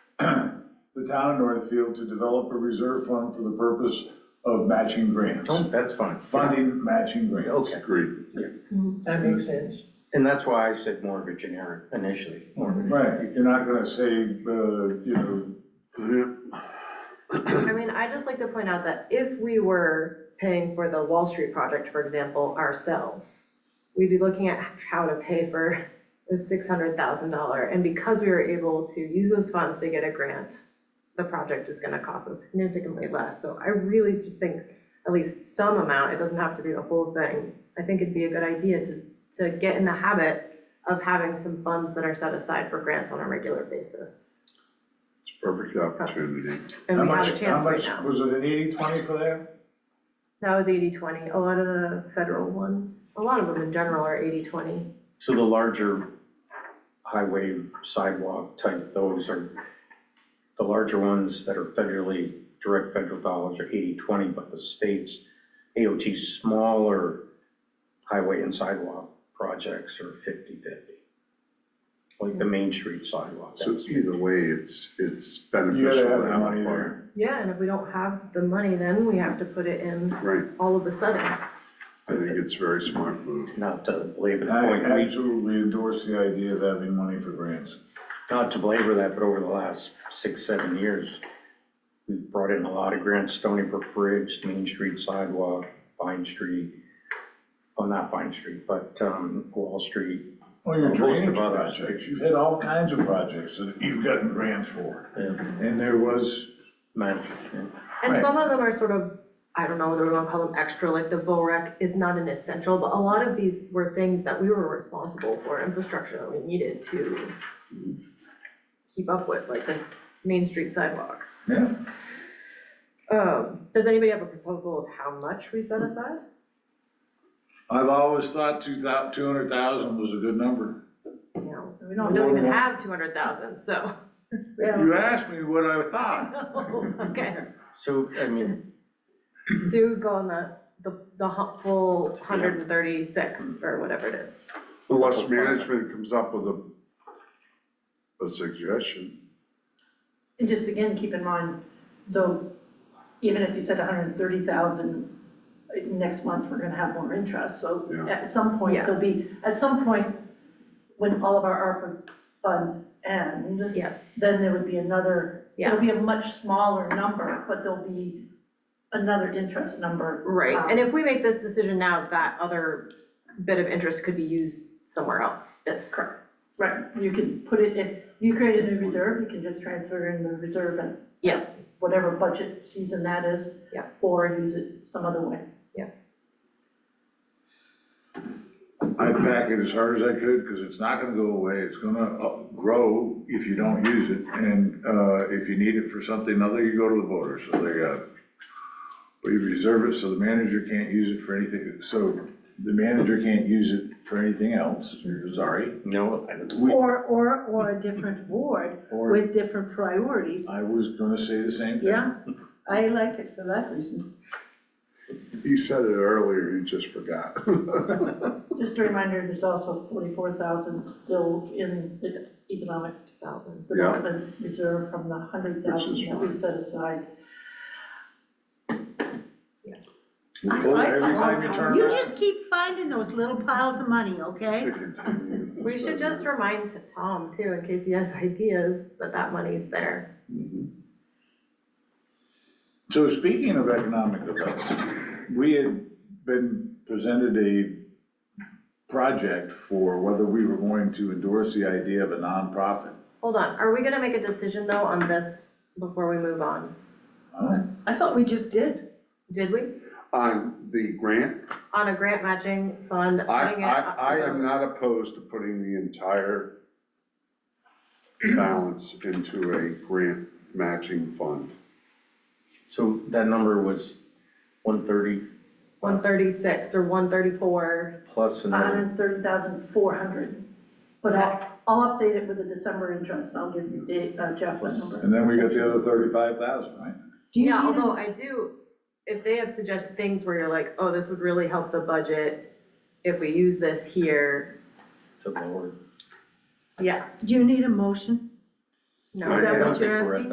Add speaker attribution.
Speaker 1: the town of Northfield to develop a reserve fund for the purpose of matching grants,
Speaker 2: Oh, that's fine.
Speaker 1: funding matching grants.
Speaker 2: Okay,
Speaker 3: Agreed.
Speaker 4: That
Speaker 1: Mm-hmm.
Speaker 4: makes sense.
Speaker 2: and that's why I said more of a generic initially, more of a.
Speaker 1: Right, you're not gonna say, uh, you know,
Speaker 5: I mean, I just like to point out that if we were paying for the Wall Street project, for example, ourselves, we'd be looking at how to pay for the six hundred thousand dollar, and because we were able to use those funds to get a grant, the project is gonna cost us significantly less, so I really just think at least some amount, it doesn't have to be the whole thing. I think it'd be a good idea to, to get in the habit of having some funds that are set aside for grants on a regular basis.
Speaker 3: It's a perfect opportunity.
Speaker 5: And
Speaker 1: how
Speaker 5: we have a
Speaker 1: much, how
Speaker 5: chance right
Speaker 1: much,
Speaker 5: now.
Speaker 1: was it an eighty twenty for that?
Speaker 5: That was eighty twenty, a lot of the federal ones, a lot of them in general are eighty twenty.
Speaker 2: So the larger highway sidewalk type, those are, the larger ones that are federally, direct federal dollars are 80-20, but the state's AOT's smaller highway and sidewalk projects are 50-50, Like the Main Street sidewalk.
Speaker 3: So
Speaker 2: that's-
Speaker 3: either way, it's, it's
Speaker 1: You
Speaker 3: beneficial
Speaker 1: gotta
Speaker 3: to
Speaker 1: have the
Speaker 3: have
Speaker 1: money
Speaker 3: a farm.
Speaker 1: there.
Speaker 5: Yeah, and if we don't have the money, then we have to put it in
Speaker 3: Right,
Speaker 5: all of a sudden.
Speaker 3: I think it's a very smart move.
Speaker 2: Not to belabor the
Speaker 1: I
Speaker 2: point, we
Speaker 1: absolutely endorse the idea of having money for grants.
Speaker 2: not to belabor that, but over the last six, seven years, we've brought in a lot of grants, Stony Brook Bridge, Main Street sidewalk, Vine Street, well, not Vine Street, but um, Wall Street.
Speaker 1: Well, your
Speaker 2: Most of
Speaker 1: drainage
Speaker 2: others.
Speaker 1: projects, you've had all kinds of projects that you've gotten grants for,
Speaker 2: and
Speaker 1: and there was,
Speaker 2: management.
Speaker 5: And
Speaker 1: Right.
Speaker 5: some of them are sort of, I don't know whether we wanna call them extra, like the VORAC is not an essential, but a lot of these were things that we were responsible for, infrastructure that we needed to keep up with, like the Main Street sidewalk.
Speaker 1: yeah,
Speaker 5: Um, does anybody have a proposal of how much we set aside?
Speaker 1: I've always thought two thou, two hundred thousand was a good number.
Speaker 5: No, we don't, don't even have two hundred thousand, so.
Speaker 1: You asked me what I thought.
Speaker 5: Okay,
Speaker 2: So, I mean,
Speaker 5: so you would go on the, the, the hu- full hundred and thirty-six or whatever it is.
Speaker 3: Unless management comes up with a, a suggestion.
Speaker 6: And just again, keep in mind, so even if you said hundred and thirty thousand, uh, next month, we're gonna have more interest, so
Speaker 3: Yeah.
Speaker 6: at some point,
Speaker 5: Yeah.
Speaker 6: there'll be, at some point, when all of our ARPA funds end,
Speaker 5: Yeah.
Speaker 6: then there would be another,
Speaker 5: Yeah.
Speaker 6: it'll be a much smaller number, but there'll be another interest number.
Speaker 5: Right, and if we make this decision now, that other bit of interest could be used somewhere else if. Correct.
Speaker 6: Right, you can put it in, you create a new reserve, you can just transfer in the reserve and
Speaker 5: Yeah.
Speaker 6: whatever budget season that is.
Speaker 5: Yeah.
Speaker 6: Or use it some other way.
Speaker 1: I pack it as hard as I could, because it's not gonna go away, it's gonna uh, grow if you don't use it, and, uh, if you need it for something other, you go to the voters, so they got it. But you reserve it, so the manager can't use it for anything, so the manager can't use it for anything else, sorry.
Speaker 2: no, I don't-
Speaker 1: We-
Speaker 4: Or, or, or a different board
Speaker 1: Or,
Speaker 4: with different priorities.
Speaker 1: I was gonna say the same thing.
Speaker 4: Yeah, I like it for that reason.
Speaker 3: He said it earlier, he just forgot.
Speaker 6: Just a reminder, there's also forty-four thousand still in the economic development reserve from the hundred
Speaker 3: Which
Speaker 6: thousand
Speaker 3: is
Speaker 6: that we set aside.
Speaker 1: You pull it Every time you turn
Speaker 4: You
Speaker 1: around.
Speaker 4: just keep finding those little piles of money, okay?
Speaker 5: We should just remind Tom too, in case he has ideas, that that money's there.
Speaker 1: So speaking of economic development, we had been presented a project for whether we were going to endorse the idea of a nonprofit.
Speaker 5: Hold on, are we gonna make a decision though on this before we move on?
Speaker 4: I thought we just did.
Speaker 5: Did we?
Speaker 3: On the grant,
Speaker 5: On a grant matching fund,
Speaker 3: I,
Speaker 5: putting it.
Speaker 3: I, I
Speaker 5: as a-
Speaker 3: am not opposed to putting the entire balance into a grant matching fund.
Speaker 2: so that number was one thirty
Speaker 5: One thirty-six or one thirty-four,
Speaker 2: plus another,
Speaker 6: hundred thirty thousand four hundred. But I'll, I'll update it with the December interest, and I'll give you Da- uh, Jeff what number.
Speaker 1: And then we got the other thirty-five thousand, right?
Speaker 4: Do you
Speaker 5: Yeah,
Speaker 4: need a-
Speaker 5: although I do, if they have suggested things where you're like, oh, this would really help the budget if we use this here,
Speaker 2: to lower.
Speaker 5: yeah,
Speaker 4: do you need a motion?
Speaker 5: no.
Speaker 3: Is
Speaker 2: I
Speaker 4: that
Speaker 2: don't
Speaker 4: what you're
Speaker 2: think we're at
Speaker 4: asking?